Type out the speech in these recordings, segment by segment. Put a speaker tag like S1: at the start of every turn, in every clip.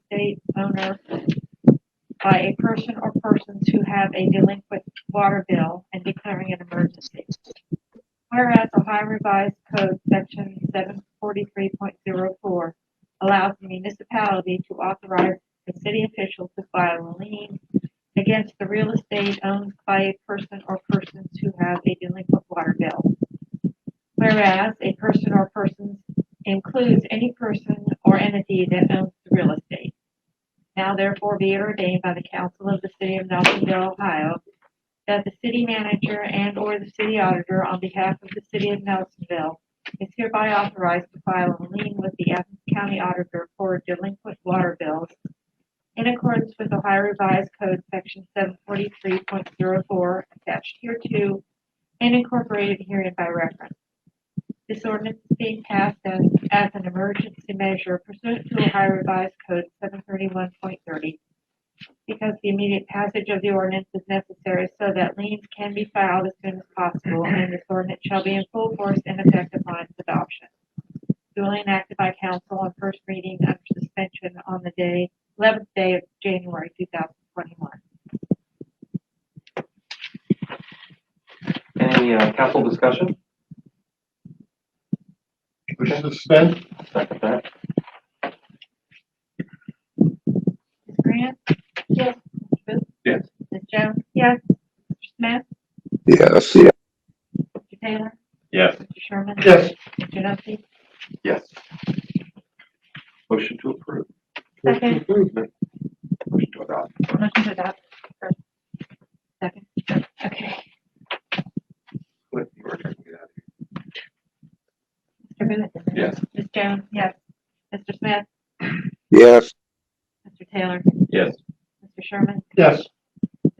S1: estate owner by a person or persons who have a delinquent water bill and declaring an emergency. Whereas Ohio Revised Code Section seven forty-three point zero four allows the municipality to authorize the city official to file a lien against the real estate owned by a person or persons who have a delinquent water bill. Whereas a person or persons includes any person or entity that owns the real estate. Now therefore be it ordained by the council of the city of Nelsonville, Ohio, that the city manager and or the city auditor on behalf of the city of Nelsonville is hereby authorized to file a lien with the Athens County Auditor for delinquent water bills in accordance with Ohio Revised Code Section seven forty-three point zero four attached hereto and incorporated herein by reference. This ordinance is being passed as, as an emergency measure pursuant to Ohio Revised Code seven thirty-one point thirty. Because the immediate passage of the ordinance is necessary so that liens can be filed as soon as possible, and this ordinance shall be in full force and effect upon its adoption. Duly enacted by council on first reading under suspension on the day, eleventh day of January two thousand twenty-one.
S2: Any uh, council discussion?
S3: Motion to suspend?
S2: Second that.
S1: Ms. Grant? Yes. Mr. Booth?
S3: Yes.
S1: Ms. Jones? Yes. Mr. Smith?
S4: yes,
S1: Mr. Taylor?
S3: Yes.
S1: Mr. Sherman?
S3: Yes.
S1: Mr. Duffy?
S2: Yes. Motion to approve.
S1: Second.
S2: Motion to adopt.
S1: Motion to adopt. first. Second. Okay.
S2: Cliff, you were checking it out.
S1: Mr. Booth?
S2: Yes.
S1: Ms. Jones? Yes. Mr. Smith?
S4: yes,
S1: Mr. Taylor?
S2: Yes.
S1: Mr. Sherman?
S3: Yes.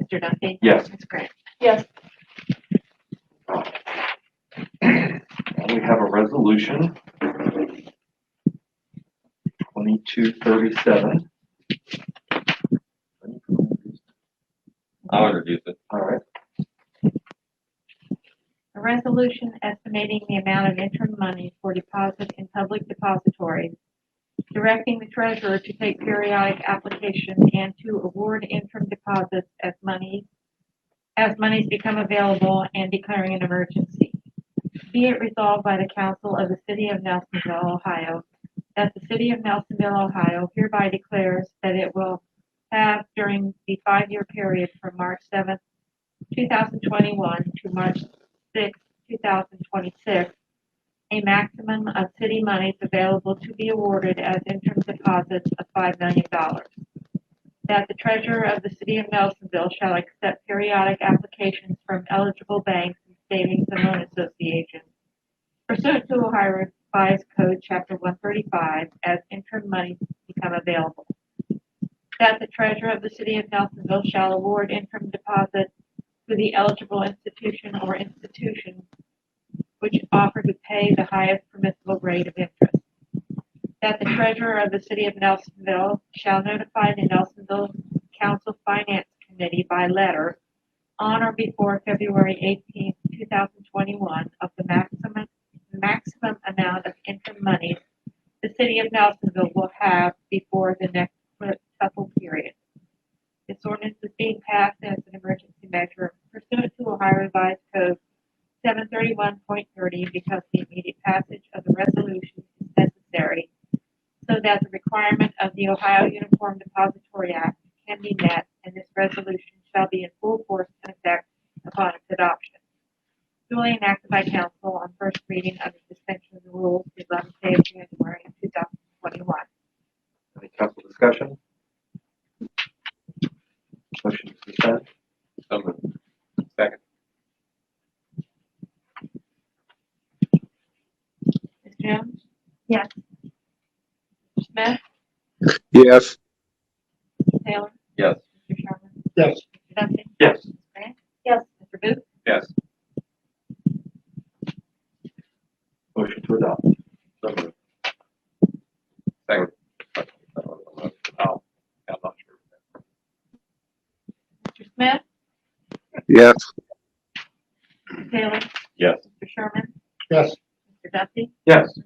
S1: Mr. Duffy?
S2: Yes.
S1: Ms. Grant?
S2: And we have a resolution. Twenty-two thirty-seven.
S5: I'll introduce it.
S2: All right,
S1: A resolution estimating the amount of interim money for deposit in public depositories, directing the treasurer to take periodic application and to award interim deposits as money, as monies become available and declaring an emergency. Be it resolved by the council of the city of Nelsonville, Ohio, that the city of Nelsonville, Ohio hereby declares that it will have during the five-year period from March seventh, two thousand twenty-one to March 6, 2026, a maximum of city monies available to be awarded as interim deposits of $5 million. That the treasurer of the city of Nelsonville shall accept periodic applications from eligible banks and savings and loan associations pursuant to Ohio Revised Code Chapter 135 as interim monies become available. That the treasurer of the city of Nelsonville shall award interim deposits to the eligible institution or institutions which offer to pay the highest permissible rate of interest. That the treasurer of the city of Nelsonville shall notify the Nelsonville Council Finance Committee by letter on or before February 18, thousand twenty-one of the maximum, maximum amount of interim money the city of Nelsonville will have before the next supplemental period. This ordinance is being passed as an emergency measure pursuant to Ohio Revised Code seven thirty-one point thirty because the immediate passage of the resolution is necessary so that the requirement of the Ohio Uniform Depository Act can be met and this resolution shall be in full force and effect upon its adoption. Duly enacted by council on first reading under suspension of the rules the eleventh day of January two thousand twenty-one.
S2: any council discussion? Motion to suspend?
S5: So moved. Second.
S1: Ms. Jones? Yes. Smith?
S4: yes.
S1: Taylor?
S5: Yes.
S1: Mr. Sherman?
S3: Yes.
S1: Mr. Duffy?
S2: Yes.
S1: Yes. Mr. Booth?
S5: Yes.
S2: Motion to adopt.
S5: So moved. Second. Oh, I'm not sure.
S1: Mr. Smith?
S4: yes.
S1: Taylor?
S5: Yes.
S1: Mr. Sherman?
S3: Yes.
S1: Mr. Duffy?
S2: Yes.